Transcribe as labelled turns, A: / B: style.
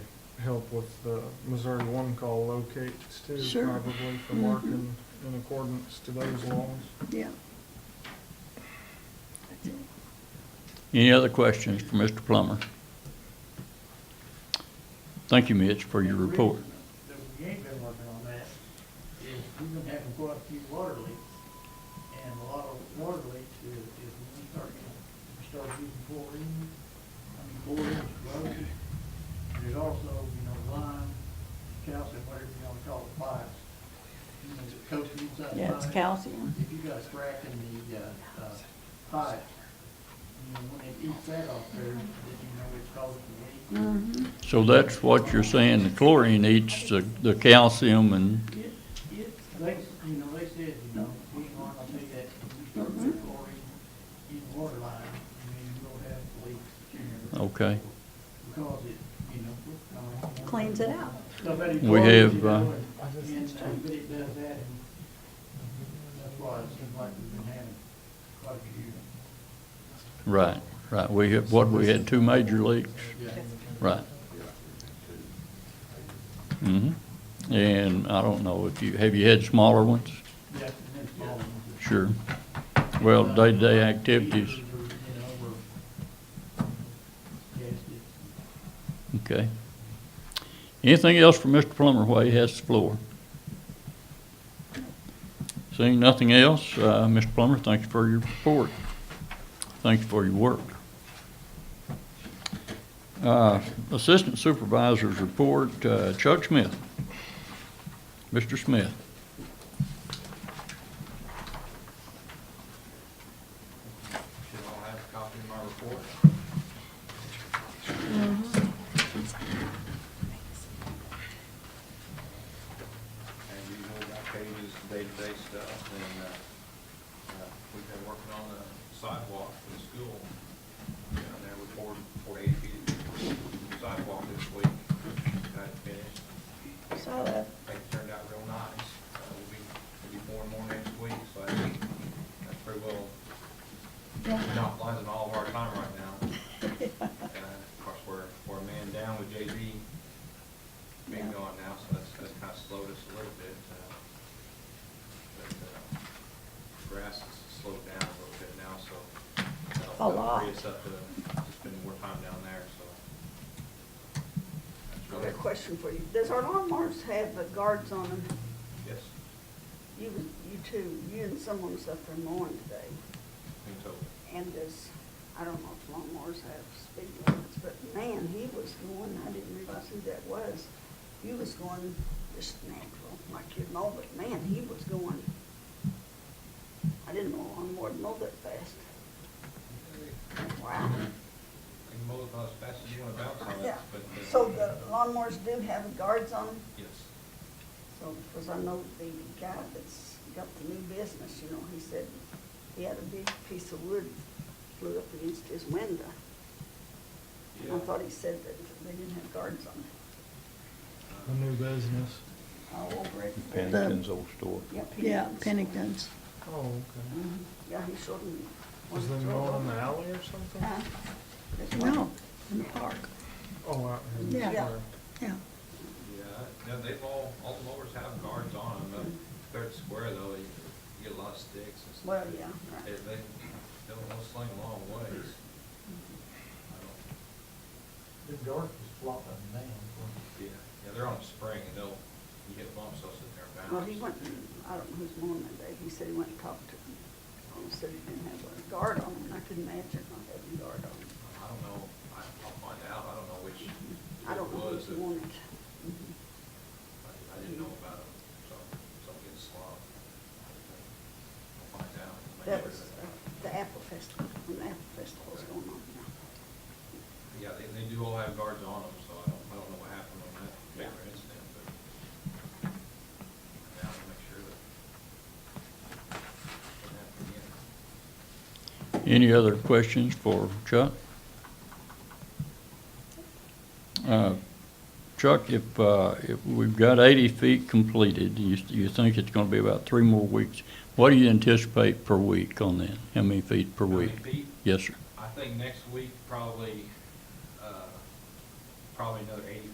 A: help with the Missouri one call locates too,
B: Sure.
A: probably for
B: Mhm.
A: marking in accordance to those laws.
B: yeah. That's it.
C: Any other questions for Mr. Plummer? Thank you, Mitch, for your
D: The
C: report.
D: reason That we ain't been working on that is we've been having quite a few water leaks. And a lot of water leaks is, is when we start, getting- we start using chlorine, I mean chlorine, roses. There's also, you know, lime, calcium, whatever you wanna call it, pipes. You know, that coats the inside
B: Yeah, it's
D: pipe.
B: calcium.
D: If you got a crack in the, uh, uh, pipe, you know, when it eats that off there, then you know it's causing a leak.
E: Mm-hmm.
B: Mhm.
C: So that's what you're saying, the chlorine eats the, the calcium and,
D: It, it, they, you know, they said, you know, we aren't gonna take that, we start with chlorine in water line, I mean, we'll have leaks.
C: okay.
D: Because it, you know. uh,
B: Cleans it out.
D: Somebody
C: We
D: chlorines
C: have,
D: it out
C: uh,
D: and- And, uh, but it does that, and that's why it seems like we've been having quite a
C: Right, right. We, had- what, we had two major leaks?
D: few. Yeah.
C: Right. hmm And I don't know if you, have you had smaller ones?
D: Yeah, and then small ones.
C: Sure. Well, day-to-day activities,
D: You know, we're- Yes, it's-
C: okay. Anything else for Mr. Plummer while he has the floor? Seeing nothing else, uh, Mr. Plummer, thank you for your report. Thank you for your work. Uh, Assistant Supervisor's Report, uh, Chuck Smith. Mr. Smith.
F: Should all have a copy of my report.
B: Mm-hmm.
F: And you know about pages, day-to-day stuff, and, uh, uh, we've been working on the sidewalk for the school. Down there, we poured, poured eighty feet of sidewalk this week, got it finished.
E: Saw that.
F: They turned out real nice. Uh, We'll be, we'll be pouring more next week, so I think that's pretty well monopolizing all of our time right now. Uh, Of course, we're, we're a man down with JB being
B: Yeah.
F: gone now, so that's, that's kind of slowed us a little bit. uh, But uh, grass has slowed down a little bit now, so. that'll-
B: A
F: that'll
B: lot.
F: Free us up to to spend more time down there, so. that's
E: I
F: really-
E: got a question for you. Does our lawnmowers have the guards on them?
F: Yes,
E: You, you two, you and someone was up there mowing today.
F: I think so.
E: And does, I don't know if lawnmowers have speed limits, but man, he was going, I didn't realize who that was. He was going just natural, like you mow, but man, he was going. I didn't mow lawnmower, mow that fast. Wow.
F: You can mow it about as fast as you want to bounce on it,
E: Yeah.
F: but. uh,
E: So the lawnmowers do have guards on them?
F: Yes.
E: So, because I know the guy that's got the new business, you know, he said he had a big piece of wood flew up against his window. And I
F: Yeah.
E: thought he said that they didn't have guards on it,
A: The new business.
E: all over it.
B: Pennington's
C: old store.
E: Yeah,
B: Yeah,
E: Pennington's.
B: Pennington's.
A: Oh, okay.
E: Mhm. Yeah, he showed me.
A: Was they mowing in the alley or something?
B: Uh-huh.
E: Huh? That's right.
B: No, in the park,
A: Oh, out in
B: Yeah.
A: there.
B: yeah.
F: Yeah, no, they've all, all the mowers have guards on them, but third square though, you you get a lot of sticks and stuff.
E: Well, yeah, right.
F: They, they, they'll they'll sling long ways. I don't-
D: The dark is flopping down.
F: Yeah, yeah, they're on a spring and they'll, you hit bumps, they'll sit there and bounce.
E: Well, he went, and- I don't know who's mowing that day, he said he went and talked to him. He said he didn't have a guard on him, and I could imagine not having a guard on him.
F: I don't know, I, I'll find out, I don't know which
E: Mm-hmm. I
F: it
E: don't know
F: was,
E: if he
F: that-
E: wanted.
F: I I didn't know about them, so, so I'm getting slobbed. I'll find out. Make
E: That
F: sure
E: was
F: that-
E: uh, the Apple Festival, when the Apple Festival was going on.
F: Yeah, they, they do all have guards on them, so I don't, I don't know what happened on that particular incident, but. I have to make sure that. doesn't happen again.
C: Any other questions for Chuck? Uh, Chuck, if, uh, if we've got 80 feet completed, you, you think it's going to be about three more weeks. What do you anticipate per week on that? How many feet per
F: How many
C: week?
F: feet?
C: Yes, sir.
F: I think next week, probably, uh, probably another eighty